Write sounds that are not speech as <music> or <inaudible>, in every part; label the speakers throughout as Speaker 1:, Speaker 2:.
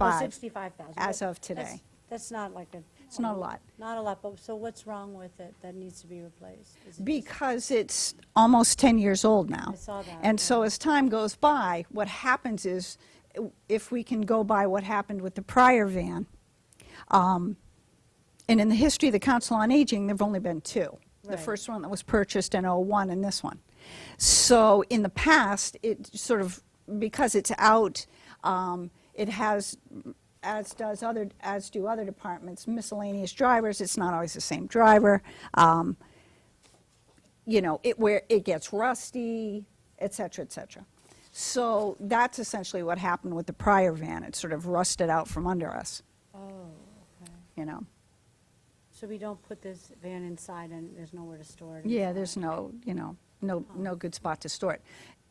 Speaker 1: Oh,
Speaker 2: 65
Speaker 1: 65,000.
Speaker 2: as
Speaker 1: But
Speaker 2: of today.
Speaker 1: that's- That's not like a. oh,
Speaker 2: It's not a lot.
Speaker 1: Not a lot, but so what's wrong with it that needs to be replaced? Is it just-
Speaker 2: because it's almost 10 years old now.
Speaker 1: I saw that,
Speaker 2: And
Speaker 1: yeah.
Speaker 2: so as time goes by, what happens is, uh, if we can go by what happened with the prior van, um, and in the history of the Council on Aging, there've only been two. The
Speaker 1: Right.
Speaker 2: first one that was purchased in '01 and this one. So in the past, it sort of, because it's out, um, it has, as does other, as do other departments, miscellaneous drivers. It's not always the same driver. Um, you know, it, where it gets rusty, et cetera, et cetera. So that's essentially what happened with the prior van. It sort of rusted out from under us,
Speaker 1: Oh, okay.
Speaker 2: you know?
Speaker 1: So we don't put this van inside and there's nowhere to store it?
Speaker 2: Yeah,
Speaker 1: inside?
Speaker 2: there's no, you know, no, no good spot to store it.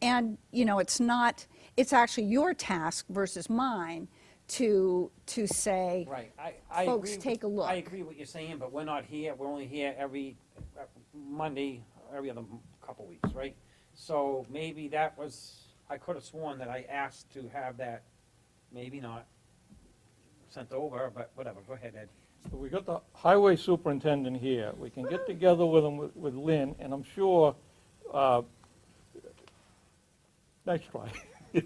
Speaker 2: And, you know, it's not, it's actually your task versus mine to, to say,
Speaker 3: Right, I, I agree.
Speaker 2: Folks, take a look.
Speaker 3: I agree what you're saying, but we're not here, we're only here every uh, Monday, every other m- couple weeks, right? So maybe that was, I could have sworn that I asked to have that, maybe not, sent over, but whatever, go ahead, Ed.
Speaker 4: So We got the highway superintendent here. We can get together with him, with- with Lynn, and I'm sure, uh, nice try. <laughs>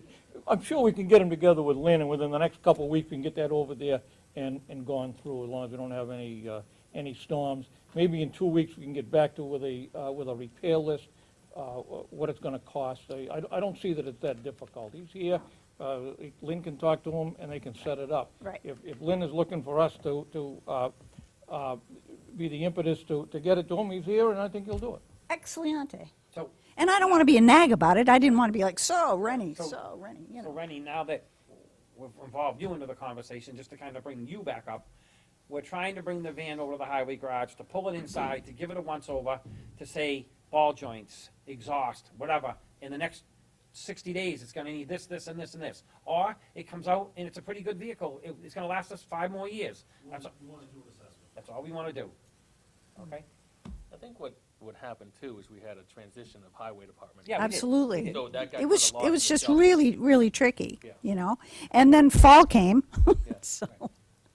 Speaker 4: I'm sure we can get him together with Lynn, and within the next couple of weeks, we can get that over there and, and gone through, as long as we don't have any, uh, any storms. Maybe in two weeks, we can get back to with a, uh, with a repair list, uh, wh- what it's gonna cost. I, I- I don't see that it's that difficult. He's here, uh, Lynn can talk to him, and they can set it up.
Speaker 2: Right.
Speaker 4: If, if Lynn is looking for us to, to, uh, uh, be the impetus to, to get it to him, he's here, and I think he'll do it.
Speaker 2: excelente.
Speaker 3: So,
Speaker 2: And I don't want to be a nag about it. I didn't want to be like, so Rennie,
Speaker 3: So-
Speaker 2: so Rennie, you
Speaker 3: so
Speaker 2: know?
Speaker 3: Rennie, now that we've involved you into the conversation, just to kind of bring you back up, we're trying to bring the van over to the highway garage, to pull it inside, to give it a once-over, to say ball joints, exhaust, whatever, in the next sixty days, it's gonna need this, this, and this, and this. Or it comes out and it's a pretty good vehicle, it, it's gonna last us five more years. That's, a-
Speaker 5: You wanna do an assessment.
Speaker 3: that's all we wanna do. Okay?
Speaker 6: I think what would happen too is we had a transition of highway department.
Speaker 3: Yeah, we did.
Speaker 2: Absolutely.
Speaker 6: So that guy
Speaker 2: It was,
Speaker 6: kinda
Speaker 2: it
Speaker 6: lost
Speaker 2: was
Speaker 6: his
Speaker 2: just
Speaker 6: job.
Speaker 2: really, really tricky,
Speaker 6: Yeah.
Speaker 2: you know? And then fall came,
Speaker 6: Yeah,
Speaker 2: <laughs> so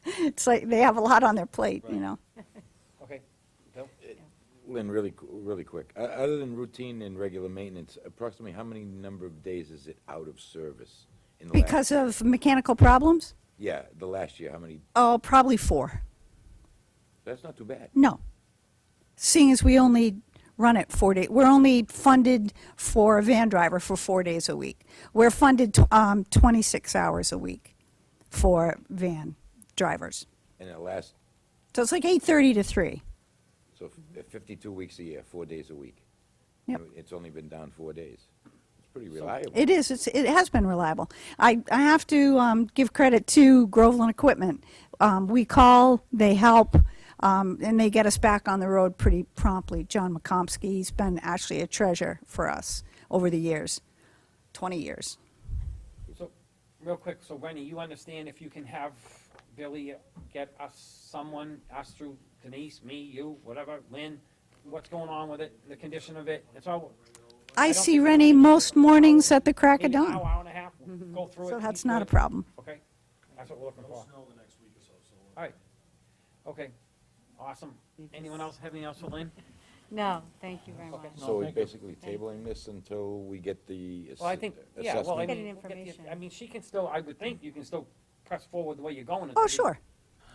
Speaker 2: it's like, they have a lot on their plate, you
Speaker 6: Right.
Speaker 2: know?
Speaker 3: Okay, Bill?
Speaker 7: Lynn, really, qu- really quick, O- other than routine and regular maintenance, approximately how many number of days is it out of service? in the last-
Speaker 2: Because of mechanical problems?
Speaker 7: Yeah, the last year, how many,
Speaker 2: Oh, probably four.
Speaker 7: that's not too bad.
Speaker 2: No. Seeing as we only run it four days, we're only funded for a van driver for four days a week. We're funded tw- um, 26 hours a week for van drivers.
Speaker 7: And it lasts,
Speaker 2: So it's like 8:30 to 3.
Speaker 7: so f- uh, fifty-two weeks a year, four days a week.
Speaker 2: Mm-hmm. Yep.
Speaker 7: And It's only been down four days. It's pretty reliable.
Speaker 2: It is, it's, it has been reliable. I, I have to um, give credit to Groveland Equipment. Um, We call, they help, um, and they get us back on the road pretty promptly. John McComsky, he's been actually a treasure for us over the years, 20 years.
Speaker 3: So, real quick, so Rennie, you understand if you can have Billy get us someone, us through Denise, me, you, whatever, Lynn, what's going on with it, the condition of it, it's all.
Speaker 2: I
Speaker 3: don't
Speaker 2: see
Speaker 3: think-
Speaker 2: Rennie most mornings at the crack of
Speaker 3: Maybe an
Speaker 2: dawn,
Speaker 3: Hour, hour and a half,
Speaker 1: Mm-hmm.
Speaker 3: go through it.
Speaker 2: so
Speaker 3: he's
Speaker 2: that's not a
Speaker 3: good,
Speaker 2: problem. Oh,
Speaker 3: Okay, that's what we're looking
Speaker 5: No
Speaker 3: for,
Speaker 5: snow the next week or so, so.
Speaker 3: all right, okay, awesome. Anyone else have anything else for Lynn?
Speaker 1: No, thank you very much.
Speaker 4: No,
Speaker 7: So we're
Speaker 4: thank you.
Speaker 7: basically tabling this until we get the ass-
Speaker 3: Well, I think, yeah, well, I
Speaker 7: assessment?
Speaker 1: Getting
Speaker 3: mean, we'll get the-
Speaker 1: information.
Speaker 3: I mean, she can still, I would think you can still press forward the way you're going. until
Speaker 2: Oh,
Speaker 3: you-
Speaker 2: sure,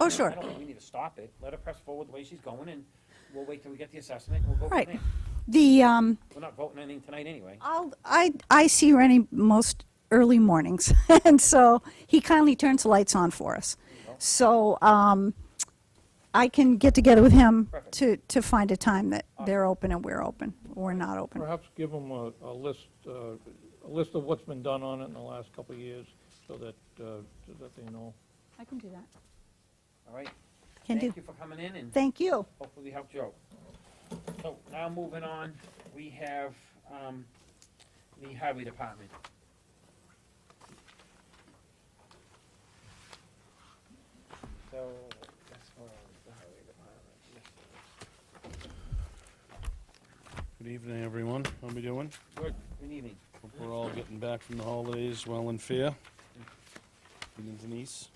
Speaker 2: oh,
Speaker 3: I
Speaker 2: sure.
Speaker 3: don't think we need to stop it, let her press forward the way she's going, and we'll wait till we get the assessment, and we'll go
Speaker 2: Right.
Speaker 3: from there.
Speaker 2: The, um,
Speaker 3: We're not voting anything tonight anyway.
Speaker 2: I'll, I, I see Rennie most early mornings, <laughs> and so he kindly turns the lights on for us. So, um, I can get together with him
Speaker 3: Perfect.
Speaker 2: to, to find a time that they're open and we're open, we're not open.
Speaker 4: Perhaps give them a, a list, uh, a list of what's been done on it in the last couple of years, so that, uh, so that they know.
Speaker 2: I can do that.
Speaker 3: All right?
Speaker 2: Can do.
Speaker 3: Thank you for coming in and
Speaker 2: Thank you.
Speaker 3: hopefully we helped you out. So now moving on, we have um, the highway department. So that's what the highway department.
Speaker 5: Good evening, everyone. How we doing?
Speaker 3: Good, good evening.
Speaker 5: Hope we're all getting back from the holidays well and fair. Good evening, Denise.